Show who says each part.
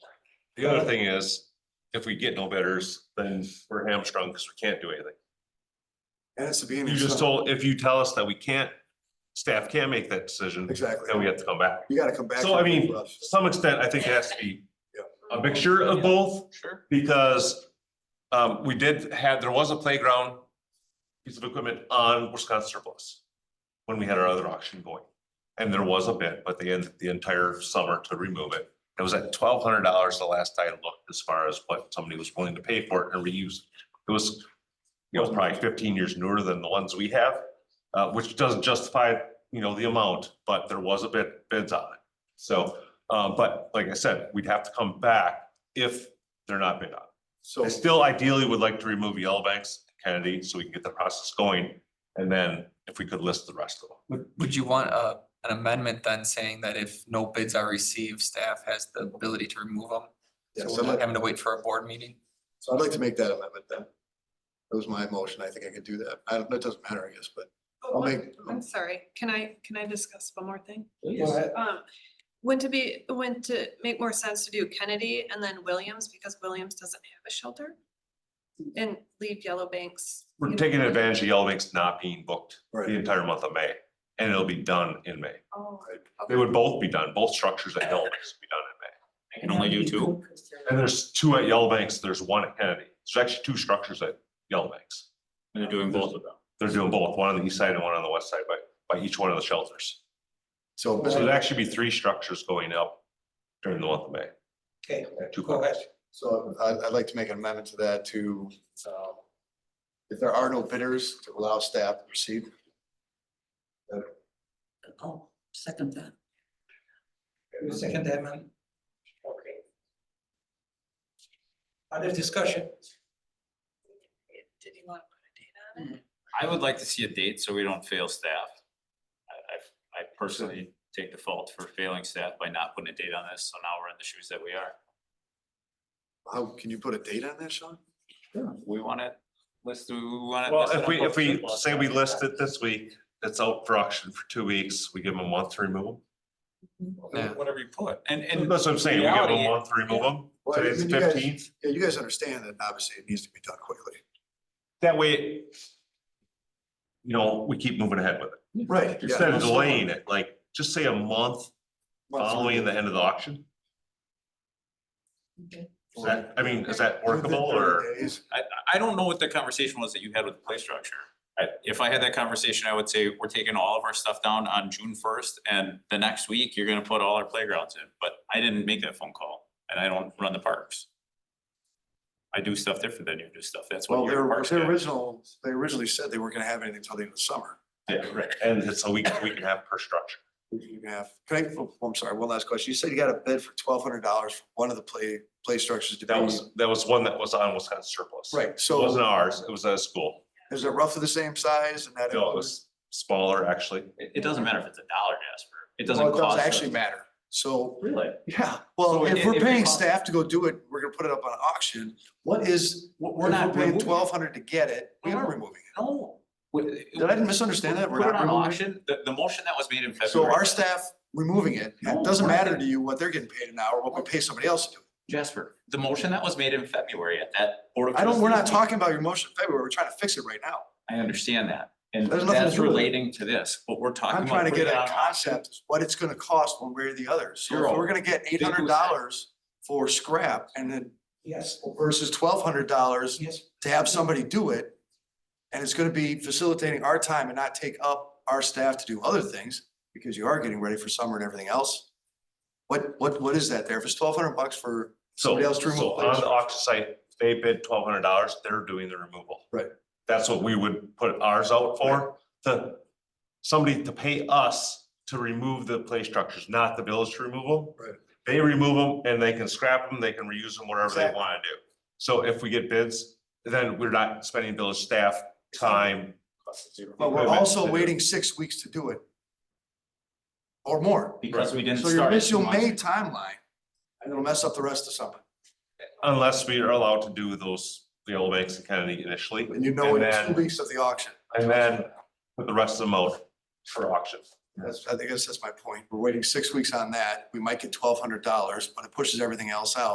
Speaker 1: The other thing is, if we get no bidders, then we're hamstrung because we can't do anything.
Speaker 2: And it's the beginning.
Speaker 1: You
Speaker 2: of
Speaker 1: just
Speaker 2: summer.
Speaker 1: told, if you tell us that we can't, staff can't make that decision,
Speaker 2: Exactly.
Speaker 1: then we have to come back.
Speaker 2: You gotta come back.
Speaker 1: So I
Speaker 2: to it
Speaker 1: mean,
Speaker 2: for
Speaker 1: to
Speaker 2: us.
Speaker 1: some extent, I think it has to be
Speaker 2: Yeah.
Speaker 1: a mixture of both
Speaker 3: Sure.
Speaker 1: because um, we did have, there was a playground piece of equipment on Wisconsin surplus when we had our other auction going. And there was a bid, but they ended the entire summer to remove it. It was at twelve hundred dollars the last I looked as far as what somebody was willing to pay for it and reuse. it. It was, it was probably fifteen years newer than the ones we have, uh, which doesn't justify, you know, the amount, but there was a bid, bids on it. So, uh, but like I said, we'd have to come back if they're not bid on.
Speaker 2: So,
Speaker 1: I still ideally would like to remove Yellowbanks, Kennedy, so we can get the process going. And then if we could list the rest of them.
Speaker 3: Would, would you want a, an amendment then saying that if no bids are received, staff has the ability to remove them?
Speaker 2: yeah,
Speaker 3: So
Speaker 2: so
Speaker 3: we're
Speaker 2: I'd
Speaker 3: not
Speaker 2: like-
Speaker 3: having to wait for a board meeting?
Speaker 2: so I'd like to make that amendment then. That was my motion. I think I could do that. I, don't- it doesn't matter, I guess, but
Speaker 4: Oh,
Speaker 2: I'll
Speaker 4: one-
Speaker 2: make-
Speaker 4: I'm sorry, can I, can I discuss one more thing?
Speaker 2: Yes.
Speaker 4: Um, wouldn't it be, wouldn't it make more sense to do Kennedy and then Williams, because Williams doesn't have a shelter? And leave Yellow Banks. you
Speaker 1: We're
Speaker 4: know,
Speaker 1: taking advantage of Yellowbanks not being booked the
Speaker 2: right,
Speaker 1: entire month of May, and it'll be done in May.
Speaker 4: Oh,
Speaker 1: They would both be done, both structures at Yellowbanks would be done in May.
Speaker 5: I
Speaker 3: can only do two.
Speaker 1: And there's two at Yellowbanks, there's one at Kennedy. There's actually two structures at Yellowbanks.
Speaker 6: And they're doing both of them.
Speaker 1: They're doing both, one on the east side and one on the west side, by, by each one of the shelters.
Speaker 2: so.
Speaker 1: So there'd actually be three structures going up during the month of May.
Speaker 5: Okay,
Speaker 1: at two
Speaker 5: go ahead.
Speaker 1: companies.
Speaker 2: So I'd, I'd like to make an amendment to that to, um, if there are no bidders, to allow staff to proceed.
Speaker 5: I'll second that. You second that, man? Okay. Other discussion?
Speaker 4: Did you want to put a date on it?
Speaker 6: I would like to see a date so we don't fail staff. I, I, I personally take the fault for failing staff by not putting a date on this, so now we're in the shoes that we are.
Speaker 2: How, can you put a date on that, Sean?
Speaker 6: We want it listed, we want it.
Speaker 1: Well,
Speaker 6: listed
Speaker 1: if
Speaker 6: on
Speaker 1: we,
Speaker 6: both
Speaker 1: if we
Speaker 6: surplus
Speaker 1: say we
Speaker 6: documents.
Speaker 1: list it this week, it's out for auction for two weeks, we give them a month to remove
Speaker 3: Yeah.
Speaker 6: Whatever you put, and,
Speaker 1: them.
Speaker 6: and
Speaker 1: That's what I'm saying, we give them
Speaker 6: reality-
Speaker 1: a month to remove them,
Speaker 2: Well, I
Speaker 1: today's
Speaker 2: mean,
Speaker 1: the
Speaker 2: you guys-
Speaker 1: fifteenth,
Speaker 2: Yeah, you guys understand that obviously it needs to be done quickly.
Speaker 1: that way. You know, we keep moving ahead with it,
Speaker 2: Right. yeah.
Speaker 1: instead of delaying it, like, just say a month following the end of the auction. Is that, I mean, is that workable or,
Speaker 2: Days.
Speaker 6: I don't know what the conversation was that you had with the play structure. I, if I had that conversation, I would say we're taking all of our stuff down on June first and the next week you're gonna put all our playgrounds in, but I didn't make that phone call and I don't run the parks. I do stuff different than you do stuff. That's
Speaker 2: Well,
Speaker 6: what
Speaker 2: their,
Speaker 6: your parks
Speaker 2: their
Speaker 6: guy.
Speaker 2: original, they originally said they weren't gonna have anything until the end of the summer.
Speaker 6: Yeah, right.
Speaker 1: and it's a week, we can have per structure.
Speaker 2: You can have, can I, oh, I'm sorry, one last question. You said you got a bid for twelve hundred dollars for one of the play, play structures to be.
Speaker 1: That was, that was one that was on Wisconsin surplus.
Speaker 2: Right,
Speaker 1: It wasn't
Speaker 2: so
Speaker 1: ours, it was at a school,
Speaker 2: is it roughly the same size and that?
Speaker 1: no, it
Speaker 2: includes-
Speaker 1: was smaller, actually.
Speaker 6: It, it doesn't matter if it's a dollar, Jasper. It
Speaker 2: Well,
Speaker 6: doesn't
Speaker 2: it
Speaker 6: cost. us-
Speaker 2: Actually matter. So,
Speaker 6: Really?
Speaker 2: yeah, well,
Speaker 6: So
Speaker 2: if
Speaker 6: if-
Speaker 2: we're
Speaker 6: if it
Speaker 2: paying
Speaker 6: costs-
Speaker 2: staff to go do it, we're gonna put it up on auction. What is,
Speaker 6: We're,
Speaker 2: we're
Speaker 6: we're not.
Speaker 2: paying
Speaker 6: removing it. Uh-huh.
Speaker 2: twelve hundred to get it, we are
Speaker 6: No.
Speaker 2: removing it.
Speaker 6: No.
Speaker 2: Did I misunderstand that? We're
Speaker 6: Put it
Speaker 2: not
Speaker 6: on
Speaker 2: removing it?
Speaker 6: auction. The, the motion that was made in February.
Speaker 2: So our staff removing it,
Speaker 6: No,
Speaker 2: it doesn't
Speaker 6: we're not
Speaker 2: matter to
Speaker 6: gonna-
Speaker 2: you what they're getting paid an hour, what we pay somebody else to do.
Speaker 6: Jasper, the motion that was made in February at that Board of.
Speaker 2: I don't, we're not
Speaker 6: Trustees meeting-
Speaker 2: talking about your motion in February, we're trying to fix it right now.
Speaker 6: I understand that, and
Speaker 2: There's nothing to
Speaker 6: that's
Speaker 2: do with it.
Speaker 6: relating to this, but we're talking
Speaker 2: I'm
Speaker 6: about.
Speaker 2: trying to get
Speaker 6: putting it
Speaker 2: a
Speaker 6: on auction.
Speaker 2: concept, of what it's gonna cost one way or the other. So if
Speaker 6: Zero.
Speaker 2: we're gonna get eight hundred dollars for scrap and then
Speaker 5: Yes,
Speaker 2: versus twelve hundred dollars
Speaker 5: yes,
Speaker 2: to have somebody do it. And it's gonna be facilitating our time and not take up our staff to do other things, because you are getting ready for summer and everything else. What, what, what is that there? If it's twelve hundred bucks for,
Speaker 1: So,
Speaker 2: Somebody else to
Speaker 1: so
Speaker 2: remove
Speaker 1: on
Speaker 2: those.
Speaker 1: the auction site, they bid twelve hundred dollars, they're doing the removal.
Speaker 2: Right.
Speaker 1: That's what we would put ours out for, to, somebody to pay us to remove the play structures, not the village to remove them.
Speaker 2: Right.
Speaker 1: They remove them and they can scrap them, they can reuse them, whatever they
Speaker 2: Exactly.
Speaker 1: wanna do. So if we get bids, then we're not spending village staff time.
Speaker 2: but we're
Speaker 1: equipment
Speaker 2: also
Speaker 1: to-
Speaker 2: waiting six weeks to do it. Or more.
Speaker 6: Because we didn't
Speaker 2: So
Speaker 6: start.
Speaker 2: your
Speaker 6: it
Speaker 2: initial
Speaker 6: two months
Speaker 2: May
Speaker 6: ago.
Speaker 2: timeline, and it'll mess up the rest of summer.
Speaker 1: Unless we are allowed to do those, the old banks and Kennedy initially,
Speaker 2: And you know
Speaker 1: And
Speaker 2: in two
Speaker 1: then-
Speaker 2: weeks of the auction.
Speaker 1: and then put the rest of them out for auction.
Speaker 2: That's, I think that's, that's my point. We're waiting six weeks on that. We might get twelve hundred dollars, but it pushes everything else out.